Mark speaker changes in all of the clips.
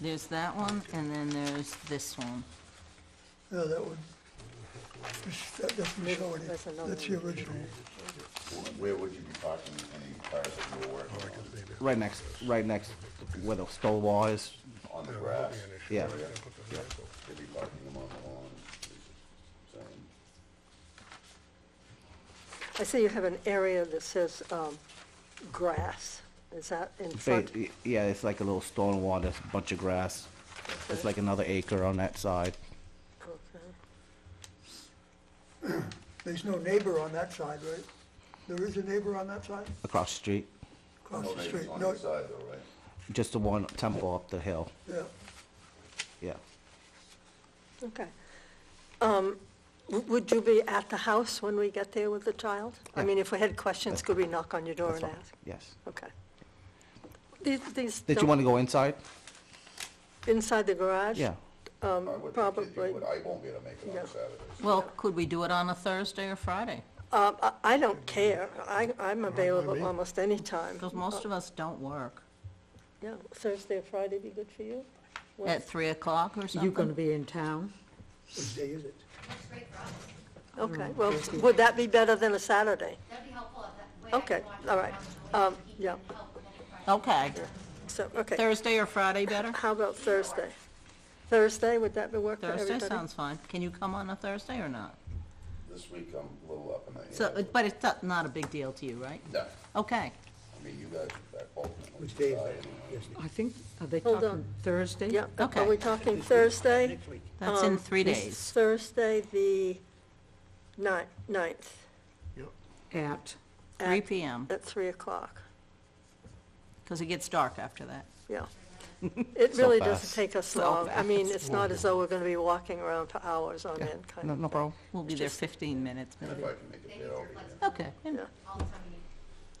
Speaker 1: There's that one, and then there's this one.
Speaker 2: No, that would, that- that's the majority.
Speaker 3: That's another
Speaker 2: That's the original.
Speaker 4: Where would you be parking any cars that you were working
Speaker 5: Right next, right next where the stone wall is,
Speaker 4: on? On the grass?
Speaker 5: yeah.
Speaker 4: They'd be parking them on the lawn. Same.
Speaker 3: I see you have an area that says um, grass. Is that in
Speaker 5: Ba-
Speaker 3: front?
Speaker 5: y- Yeah, it's like a little stone wall, there's a bunch of grass. It's like another acre on that side.
Speaker 3: Okay.
Speaker 2: There's no neighbor on that side, right? There is a neighbor on that side,
Speaker 5: across the street,
Speaker 2: across
Speaker 4: No
Speaker 2: the
Speaker 4: neighbors
Speaker 2: street?
Speaker 4: On
Speaker 2: No,
Speaker 4: the side though, right?
Speaker 5: just the one temple up the hill,
Speaker 2: yeah.
Speaker 5: yeah.
Speaker 3: Okay. Um, w- Would you be at the house when we get there with the child? I
Speaker 5: Yeah.
Speaker 3: mean, if we had questions,
Speaker 5: That's
Speaker 3: could we knock on your door
Speaker 5: That's
Speaker 3: and
Speaker 5: fine.
Speaker 3: ask?
Speaker 5: Yes.
Speaker 3: Okay. These, these.
Speaker 5: Did you
Speaker 3: don't-
Speaker 5: want to go inside?
Speaker 3: Inside the garage?
Speaker 5: Yeah.
Speaker 3: Um,
Speaker 4: I would think that you
Speaker 3: Probably.
Speaker 4: would. I won't be able to make it
Speaker 3: No.
Speaker 4: on Saturdays.
Speaker 1: Well, could we do it on a Thursday or Friday?
Speaker 3: Um, I I don't care. I, I'm available almost any time.
Speaker 1: Because most of us don't work.
Speaker 3: Yeah, Thursday or Friday be good for you?
Speaker 1: At 3 o'clock or
Speaker 6: You gonna
Speaker 1: something?
Speaker 6: be in town?
Speaker 2: What day is it?
Speaker 3: Okay,
Speaker 5: Mm.
Speaker 3: well, would that be better than a Saturday?
Speaker 7: That'd be helpful if that way I
Speaker 3: Okay,
Speaker 7: can walk
Speaker 3: all
Speaker 7: around
Speaker 3: right.
Speaker 7: the building
Speaker 3: Um,
Speaker 7: and he
Speaker 3: yeah,
Speaker 7: can help with any questions.
Speaker 1: Okay.
Speaker 3: so, okay.
Speaker 1: Thursday or Friday better?
Speaker 3: How about Thursday? Thursday, would that be work for everybody?
Speaker 1: Thursday sounds fine. Can you come on a Thursday or not?
Speaker 4: This week I'm a little up in the air.
Speaker 1: So, uh, but it's not- not a big deal to you, right?
Speaker 4: No,
Speaker 1: Okay.
Speaker 4: I mean, you guys are back ultimately.
Speaker 8: Which day is that?
Speaker 4: decide anyway.
Speaker 8: Yes,
Speaker 6: I think, are they
Speaker 3: Hold
Speaker 6: talking
Speaker 3: on.
Speaker 6: Thursday?
Speaker 3: Yeah,
Speaker 1: Okay.
Speaker 3: are we talking Thursday?
Speaker 8: next week.
Speaker 1: That's in
Speaker 3: Um,
Speaker 1: three
Speaker 3: this
Speaker 1: days.
Speaker 3: Thursday, the ni- ninth,
Speaker 6: At,
Speaker 1: Three
Speaker 3: at-
Speaker 1: PM,
Speaker 3: at 3 o'clock,
Speaker 1: because it gets dark after that.
Speaker 3: yeah. It really
Speaker 5: fast.
Speaker 3: doesn't take us long. I mean, it's not as though we're going to be walking around for hours on end, kind
Speaker 5: No,
Speaker 3: of.
Speaker 5: no problem.
Speaker 1: We'll be there 15 minutes maybe.
Speaker 4: If I can make it there, I'll be there.
Speaker 1: Okay.
Speaker 3: Yeah.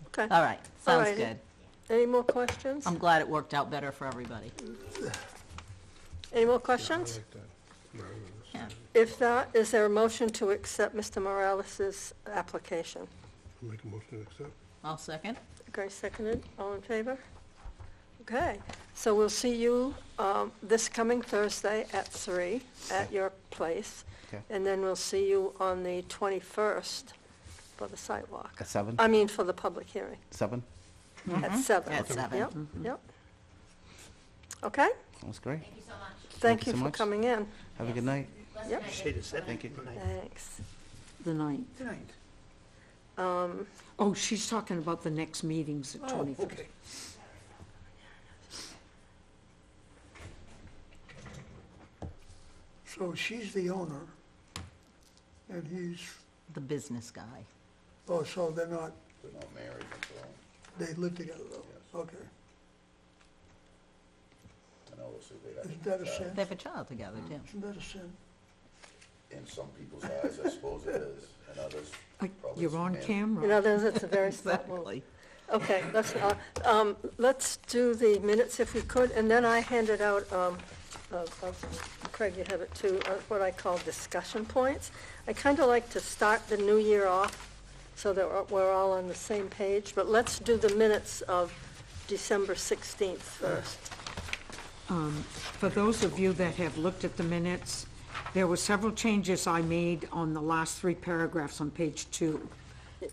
Speaker 3: Okay,
Speaker 1: All right, Um, sounds
Speaker 3: righty.
Speaker 1: good.
Speaker 3: any more questions?
Speaker 1: I'm glad it worked out better for everybody.
Speaker 3: Any more questions?
Speaker 1: Yeah.
Speaker 3: If not, is there a motion to accept Mr. Morales' application?
Speaker 8: Make a motion to accept.
Speaker 1: I'll second.
Speaker 3: Okay, seconded, all in favor? Okay, so we'll see you um, this coming Thursday at three at your place.
Speaker 5: Okay.
Speaker 3: And then we'll see you on the 21st for the sidewalk.
Speaker 5: At seven?
Speaker 3: I mean, for the public hearing,
Speaker 5: Seven?
Speaker 3: Mm-hmm. at seven. Mm-hmm.
Speaker 1: At seven.
Speaker 3: Yep, yep. Okay,
Speaker 5: That's great.
Speaker 7: Thank you so much.
Speaker 3: thank
Speaker 5: you
Speaker 3: you
Speaker 5: so
Speaker 3: for
Speaker 5: much.
Speaker 3: coming in.
Speaker 5: Have a good night.
Speaker 7: Listen,
Speaker 3: Yep.
Speaker 7: I
Speaker 8: Say
Speaker 7: did-
Speaker 8: the seventh.
Speaker 5: Thank you.
Speaker 3: Thanks.
Speaker 6: the ninth.
Speaker 8: Ninth.
Speaker 3: Um,
Speaker 6: Oh, she's talking about the next meeting's at
Speaker 8: Oh,
Speaker 6: 25th.
Speaker 8: okay.
Speaker 2: So she's the owner, and he's,
Speaker 1: The business guy.
Speaker 2: oh, so they're not,
Speaker 4: They're not married until,
Speaker 2: they live together though? Okay.
Speaker 4: and obviously they have. uh,
Speaker 2: Isn't that a sin?
Speaker 1: They have a child together, too.
Speaker 2: Isn't that a sin?
Speaker 4: In some people's eyes, I suppose it is, and others
Speaker 6: Uh,
Speaker 4: probably.
Speaker 6: You're on
Speaker 4: it's man-
Speaker 6: camera.
Speaker 3: You know, there's, it's a very smart move. Okay, let's, uh, um, let's do the minutes if we could, and then I handed out, um, uh, uh, Craig, you have it too, uh, what I call discussion points. I kind of like to start the new year off so that we're- we're all on the same page, but let's do the minutes of December 16th first.
Speaker 6: For those of you that have looked at the minutes, there were several changes I made on the last three paragraphs on page two.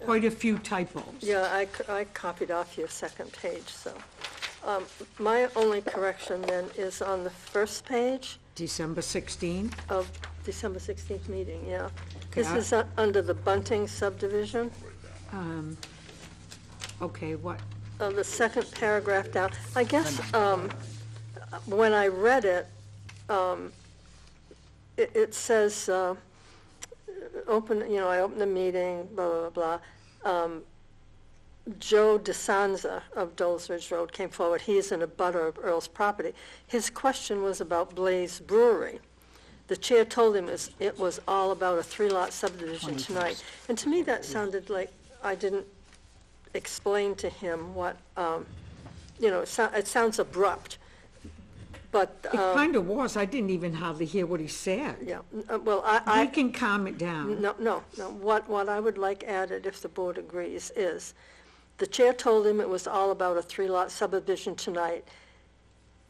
Speaker 6: Quite a few typos.
Speaker 3: Yeah, I, c- I copied off your second page, so. Um, My only correction then is on the first page.
Speaker 6: December 16th,
Speaker 3: of December 16th meeting, yeah. This
Speaker 6: Okay.
Speaker 3: is u- under the Bunting subdivision,
Speaker 6: um, okay, what,
Speaker 3: on uh, the second paragraph down. I guess um, when I read it, um, it it says, uh, open, you know, I opened the meeting, blah, blah, blah. blah. Um, Joe DeSanza of Dole's Ridge Road came forward. He is in a butter of Earl's property. His question was about Blaze Brewery. The chair told him it's- it was all about a three-lot subdivision tonight. And to me, that sounded like I didn't explain to him what, um, you know, it sou- it sounds abrupt, but,
Speaker 6: it
Speaker 3: um,
Speaker 6: kind of was, I didn't even hardly hear what he said.
Speaker 3: yeah, n- uh, well, I, I.
Speaker 6: We can calm it down.
Speaker 3: No, no, no. What, what I would like added, if the board agrees, is, the chair told him it was all about a three-lot subdivision tonight,